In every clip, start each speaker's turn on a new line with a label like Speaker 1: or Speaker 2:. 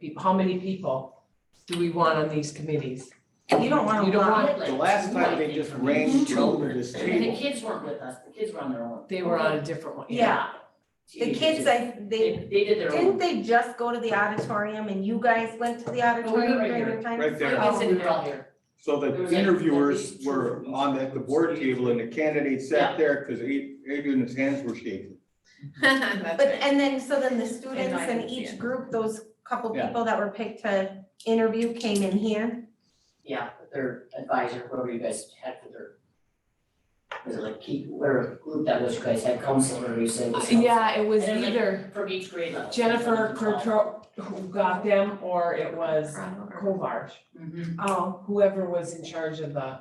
Speaker 1: people, how many people do we want on these committees?
Speaker 2: You don't want
Speaker 1: You
Speaker 2: a
Speaker 1: don't
Speaker 2: lot.
Speaker 1: want-
Speaker 3: The last time they just ran
Speaker 2: Mhm.
Speaker 3: two over this
Speaker 2: And
Speaker 3: table.
Speaker 4: And the kids weren't with us, the kids were on their own.
Speaker 1: They were on a different one.
Speaker 2: Yeah, the kids, I, they,
Speaker 4: They, they did their
Speaker 2: didn't
Speaker 4: own.
Speaker 2: they just go to the auditorium and you guys went to the
Speaker 4: we
Speaker 2: auditorium
Speaker 4: were right
Speaker 2: during
Speaker 4: here,
Speaker 2: the time? Oh.
Speaker 3: right there.
Speaker 4: We were sitting around here.
Speaker 3: So
Speaker 4: There was
Speaker 3: the
Speaker 4: like-
Speaker 3: interviewers
Speaker 4: like two
Speaker 3: were
Speaker 4: from each-
Speaker 3: on the, the board table and the candidates sat there because Adrian's hands were shaking.
Speaker 2: But, and then, so then the students
Speaker 5: didn't
Speaker 2: and
Speaker 5: see
Speaker 2: each group, those couple
Speaker 3: Yeah.
Speaker 2: people that were picked to interview came in here.
Speaker 4: Yeah, their advisor, whoever you guys had for their. Was it like keep, whatever group that was you guys had, counselor, you said. was
Speaker 1: Uh, Yeah, it was
Speaker 4: And then, like,
Speaker 1: either
Speaker 4: counselor From each grade level.
Speaker 1: Jennifer Kurtro who got them or it was Kovarch,
Speaker 4: Mhm.
Speaker 2: Oh,
Speaker 1: whoever was in charge of the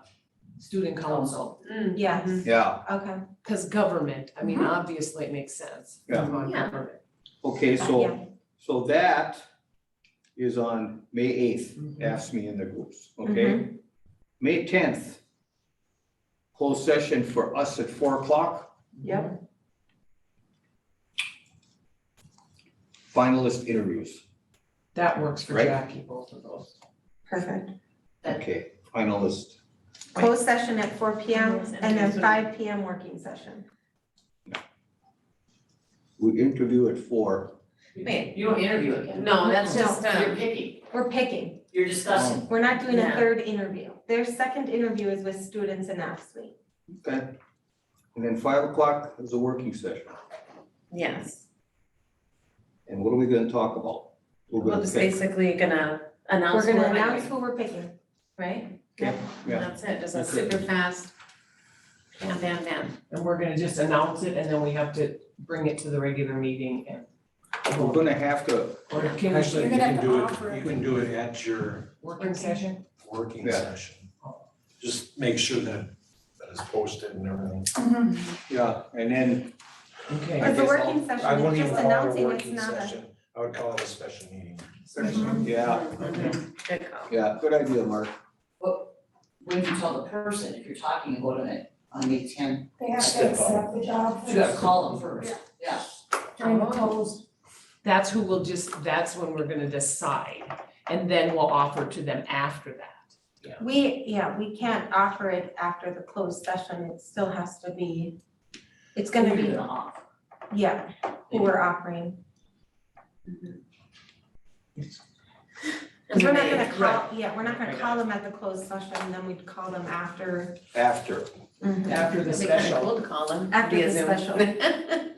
Speaker 1: student council.
Speaker 4: Council.
Speaker 2: yes,
Speaker 3: Yeah,
Speaker 2: okay.
Speaker 1: Cause government, I mean, obviously it makes sense.
Speaker 3: Yeah.
Speaker 1: Come on,
Speaker 4: Yeah.
Speaker 1: government.
Speaker 3: okay,
Speaker 2: Yeah.
Speaker 3: so, so that is on May eighth,
Speaker 1: Mm-hmm.
Speaker 3: ask me in the groups, okay? May tenth, closed session for us at four o'clock,
Speaker 2: Yep.
Speaker 3: finalist interviews.
Speaker 1: That works for
Speaker 3: Right.
Speaker 1: Jackie, both of those.
Speaker 2: Perfect.
Speaker 3: Okay, finalist,
Speaker 2: Closed session at four P M and then five P M working session.
Speaker 3: we interview at four.
Speaker 5: Wait.
Speaker 4: You don't interview again.
Speaker 5: No, that's
Speaker 2: No.
Speaker 5: just,
Speaker 4: You're
Speaker 5: um,
Speaker 4: picking,
Speaker 2: We're picking,
Speaker 4: you're discussing.
Speaker 2: we're not doing a
Speaker 5: Yeah.
Speaker 2: third interview. Their second interview is with students in F suite.
Speaker 3: Okay. And then five o'clock is a working session.
Speaker 5: yes,
Speaker 3: And what are we gonna talk about? We're
Speaker 5: we're
Speaker 3: gonna
Speaker 5: just
Speaker 3: pick.
Speaker 5: basically gonna announce
Speaker 2: We're
Speaker 5: who
Speaker 2: gonna
Speaker 5: we're
Speaker 2: announce
Speaker 5: hiring,
Speaker 2: who we're picking.
Speaker 5: right?
Speaker 3: Yeah, yeah.
Speaker 5: That's it, just a
Speaker 3: That's it.
Speaker 5: super fast, bam, bam, bam.
Speaker 1: And we're gonna just announce it and then we have to bring it to the regular meeting and.
Speaker 3: We're gonna have to,
Speaker 1: Or can we-
Speaker 6: Actually,
Speaker 7: You're gonna
Speaker 6: you can
Speaker 7: have
Speaker 6: do
Speaker 7: to offer
Speaker 6: it, you can do it at your
Speaker 1: working session?
Speaker 6: working
Speaker 3: Yeah.
Speaker 6: session. Just make sure that, that is posted and everything.
Speaker 3: yeah, and then,
Speaker 1: Okay.
Speaker 2: Because the
Speaker 6: guess I'll-
Speaker 2: working
Speaker 6: I
Speaker 2: session
Speaker 6: wouldn't
Speaker 2: is
Speaker 6: even
Speaker 2: just
Speaker 6: call it a
Speaker 2: announcing, it's
Speaker 6: working
Speaker 2: not a,
Speaker 6: session, I would call it a special meeting.
Speaker 3: yeah,
Speaker 5: Mhm, Good call.
Speaker 3: yeah, good idea, Mark.
Speaker 4: When you tell the person, if you're talking about it on May tenth,
Speaker 7: They have to accept the job
Speaker 4: you gotta
Speaker 7: first
Speaker 4: call them first, yeah.
Speaker 7: during the
Speaker 1: Oh.
Speaker 7: closed
Speaker 1: That's who will just, that's when we're gonna decide and then we'll offer to them after that.
Speaker 2: we, yeah, we can't offer it after the closed session. It still has to be, it's gonna
Speaker 4: Who
Speaker 2: be,
Speaker 4: you're gonna offer.
Speaker 2: yeah, who we're offering. Because we're not gonna
Speaker 1: Right.
Speaker 2: call, yeah, we're not
Speaker 1: I
Speaker 2: gonna
Speaker 1: got
Speaker 2: call them at the closed session, and then we'd call them after.
Speaker 3: After,
Speaker 1: After the
Speaker 5: It'd be kind of
Speaker 1: special.
Speaker 5: cool to call them
Speaker 2: After
Speaker 5: via
Speaker 2: the
Speaker 5: Zoom.
Speaker 2: special.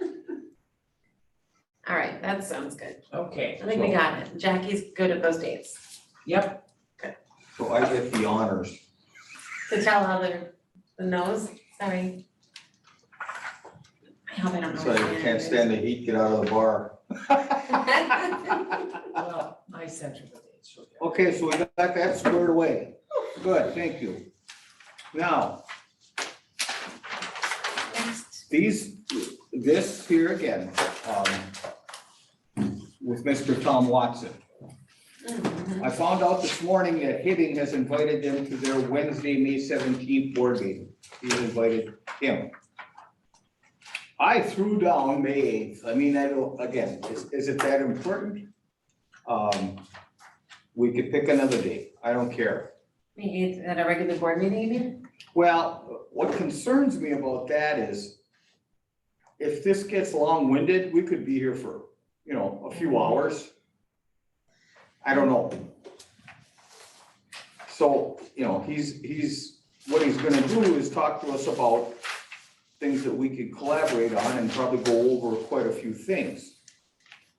Speaker 5: All right, that sounds good. I
Speaker 1: Okay.
Speaker 5: think we got it. Jackie's good at those dates.
Speaker 1: Yep,
Speaker 3: so I get the honors.
Speaker 5: To tell how the, the nose, sorry. I hope I don't know.
Speaker 3: So I can't stand the heat, get out of the bar.
Speaker 1: well, I sent her the dates. she'll get it.
Speaker 3: Okay, so we got that squared away. Good, thank you. Now,
Speaker 5: Next.
Speaker 3: these, this here again, um, with Mr. Tom Watson.
Speaker 5: Mhm.
Speaker 3: I found out this morning that Hibbing has invited them to their Wednesday, May seventeenth board meeting. He's invited him. I threw down May eighth. I mean, I don't, again, is, is it that important? Um, we could pick another day. I don't care.
Speaker 5: May eighth, at a regular board meeting, you mean?
Speaker 3: Well, what concerns me about that is if this gets long-winded, we could be here for, you know, a few hours. I don't know. So, you know, he's, he's, what he's gonna do is talk to us about things that we could collaborate on and probably go over quite a few things.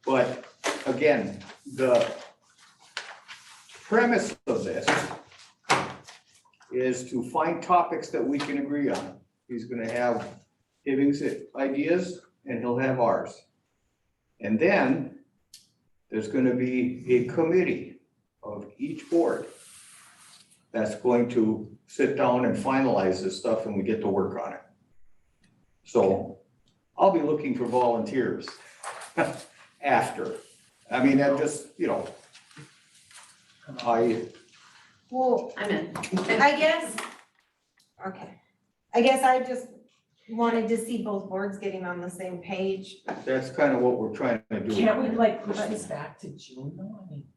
Speaker 3: But again, the premise of this is to find topics that we can agree on. He's gonna have Hibbing's ideas and he'll have ours. And then there's gonna be a committee of each board that's going to sit down and finalize this stuff and we get to work on it. So I'll be looking for volunteers after. I mean, I'm just, you know, I,
Speaker 2: Well,
Speaker 5: I'm in.
Speaker 2: I guess, okay, I guess I just wanted to see both boards getting on the same page.
Speaker 3: that's kind of what we're trying to do.
Speaker 1: Can't we like push this back to June though? I mean,